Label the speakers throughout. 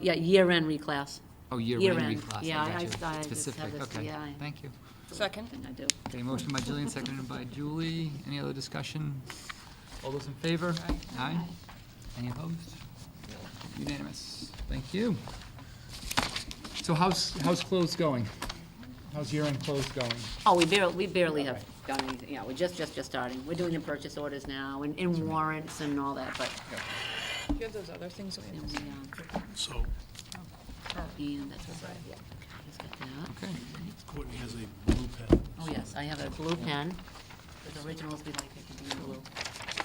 Speaker 1: Yeah, year-end reclass.
Speaker 2: Oh, year-end
Speaker 1: Year-end.
Speaker 2: reclass,
Speaker 1: Yeah,
Speaker 2: I
Speaker 1: I-
Speaker 2: got
Speaker 1: I
Speaker 2: you.
Speaker 1: just have
Speaker 2: Specific,
Speaker 1: this-
Speaker 2: okay,
Speaker 1: yeah, I-
Speaker 2: thank you.
Speaker 3: Second.
Speaker 1: Thing I do.
Speaker 2: Okay, motion by Jillian, seconded by Julie. Any other discussion? All those in favor? Aye. Any opposed? Unanimous. Thank you. So how's, how's close going? How's year-end close going?
Speaker 1: Oh, we barely, we barely have done anything, yeah, we're just, just, just starting. We're doing your purchase orders now, and, and warrants and all that, but,
Speaker 3: Do you have those other things that we
Speaker 1: and
Speaker 3: missed?
Speaker 1: we, um,
Speaker 4: So
Speaker 1: and that's what, yeah. Just got that.
Speaker 2: Okay,
Speaker 4: Courtney has a blue pen.
Speaker 1: Oh, yes, I have a blue pen, with originals we like, they can be blue.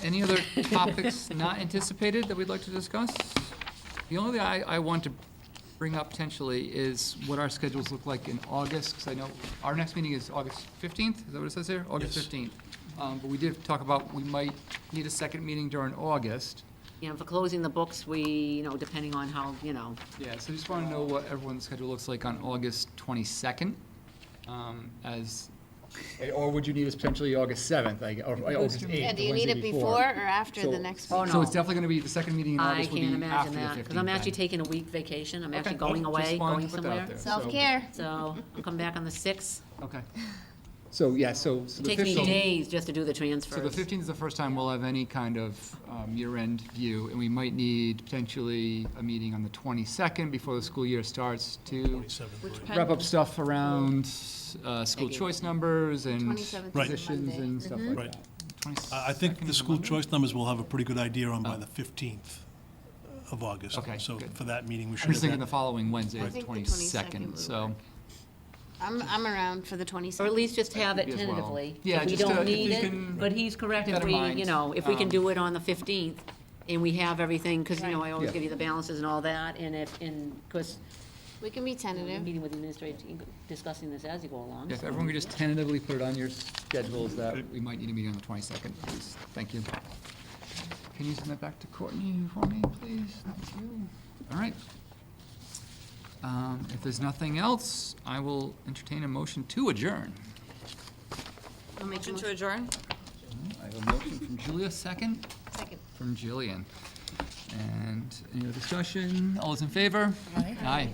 Speaker 2: any other topics not anticipated that we'd like to discuss? The only thing I, I want to bring up potentially is what our schedules look like in August, because I know our next meeting is August 15th, is that what it says here? August
Speaker 4: Yes.
Speaker 2: 15th. Um, But we did talk about, we might need a second meeting during August.
Speaker 1: You know, for closing the books, we, you know, depending on how, you know,
Speaker 2: Yeah, so I just want to know what everyone's schedule looks like on August 22nd, um, as, or would you need us potentially August 7th, like, or August 8th?
Speaker 5: Yeah,
Speaker 2: the
Speaker 5: do you need
Speaker 2: Wednesday
Speaker 5: it before or after
Speaker 2: So-
Speaker 5: the next
Speaker 1: Oh,
Speaker 5: meeting?
Speaker 2: So
Speaker 1: no.
Speaker 2: it's definitely going to be, the second meeting in
Speaker 1: I
Speaker 2: August will
Speaker 1: can't
Speaker 2: be after
Speaker 1: imagine
Speaker 2: the 15th.
Speaker 1: that, because I'm actually
Speaker 2: then.
Speaker 1: taking a week vacation, I'm actually
Speaker 2: Okay.
Speaker 1: going
Speaker 2: Just
Speaker 1: away,
Speaker 2: wanted
Speaker 1: going
Speaker 2: to put that out
Speaker 1: somewhere.
Speaker 2: there. So-
Speaker 5: Self-care.
Speaker 1: So, I'll come back on the sixth.
Speaker 2: Okay. So, yeah, so so
Speaker 1: It
Speaker 2: the
Speaker 1: takes me
Speaker 2: 15th,
Speaker 1: days just to do the
Speaker 2: so the
Speaker 1: transfers.
Speaker 2: 15th is the first time we'll have any kind of um, year-end view, and we might need potentially a meeting on the 22nd before the school year starts to
Speaker 4: Twenty-seventh,
Speaker 3: Which
Speaker 4: right?
Speaker 3: pen?
Speaker 2: wrap up stuff around uh, school
Speaker 1: Thank you.
Speaker 2: choice numbers and
Speaker 5: 27th is a
Speaker 2: positions
Speaker 5: Monday. Mm-hmm.
Speaker 2: and stuff like
Speaker 4: Right. Uh,
Speaker 2: that. 22nd
Speaker 4: I, I think
Speaker 2: is
Speaker 4: the
Speaker 2: a
Speaker 4: school
Speaker 2: Monday?
Speaker 4: choice numbers will have a pretty good idea on by the fifteenth of August.
Speaker 2: Oh. Okay,
Speaker 4: So
Speaker 2: good.
Speaker 4: for that meeting, we should.
Speaker 2: I'm just
Speaker 4: have
Speaker 2: thinking the
Speaker 4: that.
Speaker 2: following Wednesday,
Speaker 5: I
Speaker 2: the
Speaker 5: think the 22nd
Speaker 2: 22nd,
Speaker 5: would
Speaker 2: so.
Speaker 5: work. I'm, I'm around for the 27th.
Speaker 1: Or at least just have it
Speaker 2: As well.
Speaker 1: tentatively.
Speaker 2: Yeah,
Speaker 1: If we
Speaker 2: just, uh,
Speaker 1: don't
Speaker 2: if
Speaker 1: need
Speaker 2: we can
Speaker 1: it, but he's correct,
Speaker 2: keep
Speaker 1: if
Speaker 2: that in
Speaker 1: we,
Speaker 2: mind.
Speaker 1: you know, if we can
Speaker 2: Um,
Speaker 1: do it on the 15th, and we have everything, because, you know, I always
Speaker 2: Yeah.
Speaker 1: give you the balances and all that, and if, and, because,
Speaker 5: We can be tentative.
Speaker 1: meeting with the administrator, discussing this as you go along.
Speaker 2: If
Speaker 1: so-
Speaker 2: everyone could just tentatively put it on your schedules that we might need a meeting on the 22nd, please. Thank you. Can you send that back to Courtney for me, please? Thank you. All right. Um, If there's nothing else, I will entertain a motion to adjourn.
Speaker 5: I'll make a
Speaker 3: Motion to
Speaker 5: motion.
Speaker 3: adjourn?
Speaker 2: I have a motion from Julia, second
Speaker 5: Second.
Speaker 2: from Jillian. And any other discussion? All those in favor? Aye. Aye.